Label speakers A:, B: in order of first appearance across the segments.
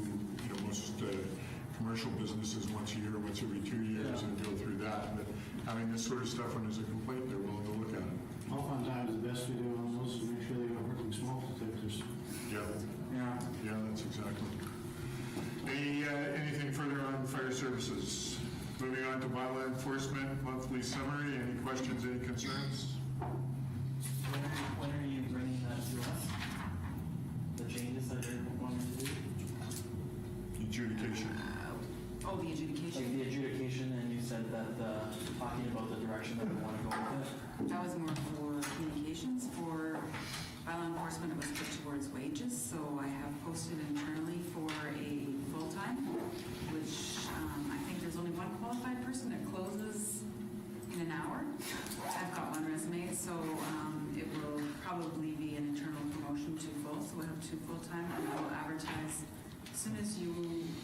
A: uh, commercial businesses once a year, once every two years, and go through that. But having this sort of stuff when there's a complaint, they're willing to look at it.
B: Oftentimes, the best we do on those is make sure they are working smoke detectors.
A: Yeah,
B: Yeah.
A: yeah, that's exactly. Any, uh, anything further on fire services? Moving on to bylaw enforcement, monthly summary, any questions, any concerns?
C: When are, when are you bringing that to us? The changes that you're wanting to do?
A: Adjudication.
D: Oh, the
C: Like
D: adjudication.
C: the adjudication, and you said that the, talking about the direction that we want to go with
D: That was more for communications. For bylaw enforcement, it was put towards wages, so I have posted internally for a full-time, which um, I think there's only one qualified person that closes in an hour. I've got one resume, so um, it will probably be an internal promotion to full, so we'll have two full-time, and I will advertise as soon as you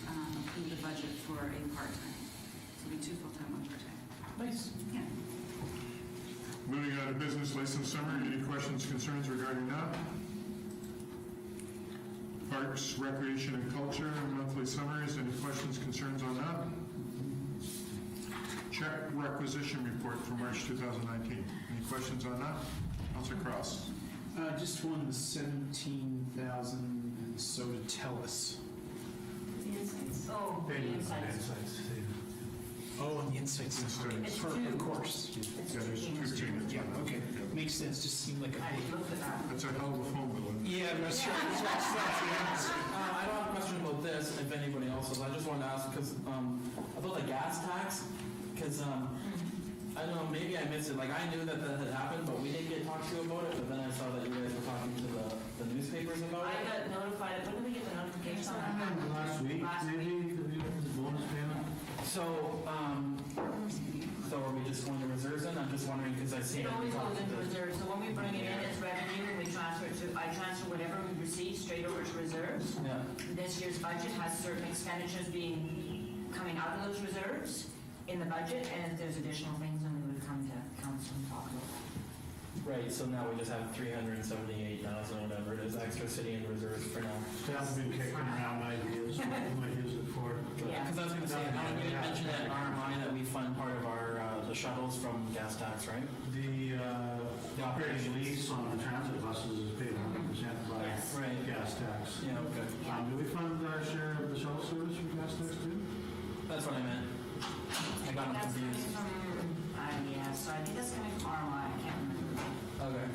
D: um, approve the budget for a part-time. So it'll be two full-time, one part-time.
C: it. Nice.
D: Yeah.
A: Moving on to business license summary, any questions, concerns regarding that? Parks, Recreation and Culture, monthly summaries, any questions, concerns on that? Check requisition report for March 2019, any questions on that? Counselor Cross?
E: Uh, just one, the 17,000 and so to tell us.
F: Oh, the insights.
E: Oh, and the insights.
A: Insights.
E: For- Of course.
F: It's
A: Yeah, there's two changes.
E: Yeah, okay. Makes sense, just seemed like a
F: I
E: big.
F: looked it up.
A: That's a hell of a phone bill. isn't it?
E: Yeah, I'm not sure.
C: Uh, I don't have a question about this, if anybody else does. I just wanted to ask, because, um, about the gas tax, because, um, I don't know, maybe I missed it. Like, I knew that that had happened, but we didn't get talked to about it, but then I saw that you guys were talking to the, the newspapers about
F: I
C: it.
F: got notified, when did we get the notification on
B: I
F: that?
B: remember last week,
F: Last
B: maybe, because we went to the bonus payment.
C: So, um, so are we just going to reserves then? I'm just wondering, because I see.
F: It always goes into reserves, so when we bring it in, it's revenue, and we transfer it to, I transfer whatever we receive straight over to reserves.
C: Yeah,
F: This year's budget has certain expenditures being, coming out of those reserves in the budget, and if there's additional things, then we would come to council and talk about that.
C: right, so now we just have three hundred and seventy-eight thousand, whatever it is, extra city in reserves for now.
B: Staff have been kicking around ideas, what we might use it for.
F: Yeah.
C: Because I was going to say, I we had mentioned at RMI that we fund part of our, uh, the shuttles from gas tax, right?
B: The, uh, the operating lease on the transit buses is paid 100% by
F: Yes.
C: Right.
B: gas tax.
C: Yeah, okay.
B: Um, do we fund our share of the shuttle service from gas tax too?
C: That's what I meant. I got them
F: That's coming
C: confused.
F: from, uh, yeah, so I think that's coming from RMI, I can't remember.
C: Okay.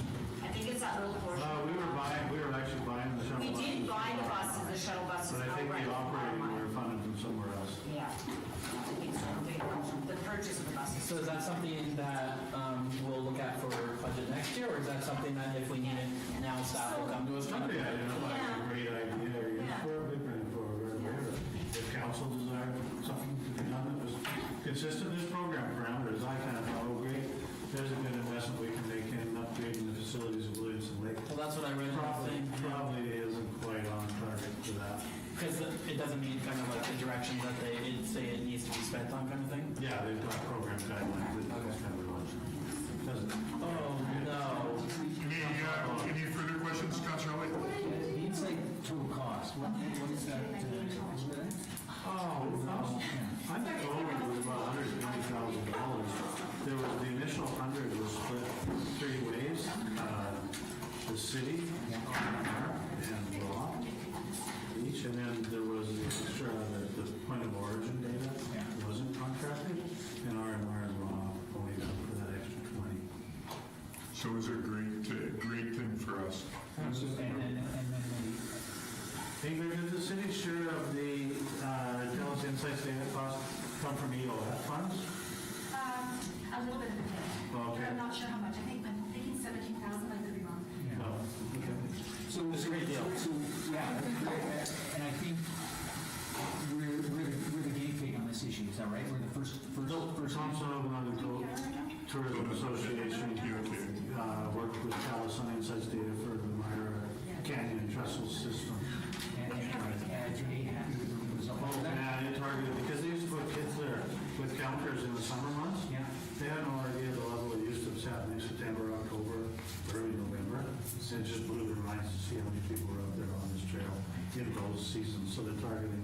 F: I think it's that little portion.
B: Uh, we were buying, we were actually buying the shuttle.
F: We
B: buses.
F: did buy the buses, the shuttle buses.
B: But I think
F: outright
B: the
F: from
B: operating, we
F: RMI.
B: were funded from somewhere else.
F: Yeah. I think so. They come from The purchase of the buses.
C: So is that something that um, we'll look at for budget next year, or is that something that if we need it now, staff will come to us?
B: Somebody identified a
F: Yeah.
B: great idea, or use
F: Yeah.
B: for a big grant for a great idea. If council desired something to be done that was consistent with program parameters, I kind of thought, oh, great, there's a good investment we can make in upgrading the facilities of Williamson Lake.
C: Well, that's what I read in the
B: Probably,
C: thing,
B: probably isn't quite on target for that.
C: because it doesn't mean kind of like the direction that they it- say it needs to be spent on kind of thing.
B: Yeah, they've got program guidelines, that that's kind of large. Doesn't,
C: Oh, no.
A: Any, uh, any further questions, Counselor Elliott?
G: The insight tool cost, what, what is that? uh,
B: Oh, I think Owen was about hundred and twenty thousand dollars. There was, the initial hundred was split three ways, uh, the city, and Rock each, and then there was the extra, the, the point of origin data wasn't contracted, and RMR and Rock only got for that extra twenty.
A: So it was a great, uh, great thing for us.
G: And then, and then the
B: Ingrid, does the city share of the, uh, Dallas Insights data cost come from EOF funds?
H: Um, A little bit of a bit.
B: Okay.
H: I'm not sure how much. I think, I'm thinking 17,000, I could be wrong.
B: No.
G: So it's a great deal. So, yeah, and I think we're, we're the, we're the guinea pig on this issue, is that right? We're the first, first, first.
B: Thompson Open Tour- Tourism Association uh, worked with Calus on Insights Data for the Myra Canyon Trestle System.
G: And, and, and you're happy with the result.
B: Oh, man, it targeted, because they used to put kids there with counters in the summer months.
G: Yeah.
B: They had no idea the level of use that was happening September, October, early November. So It just blew their minds to see how many people were out there on this trail in those seasons. So they're targeting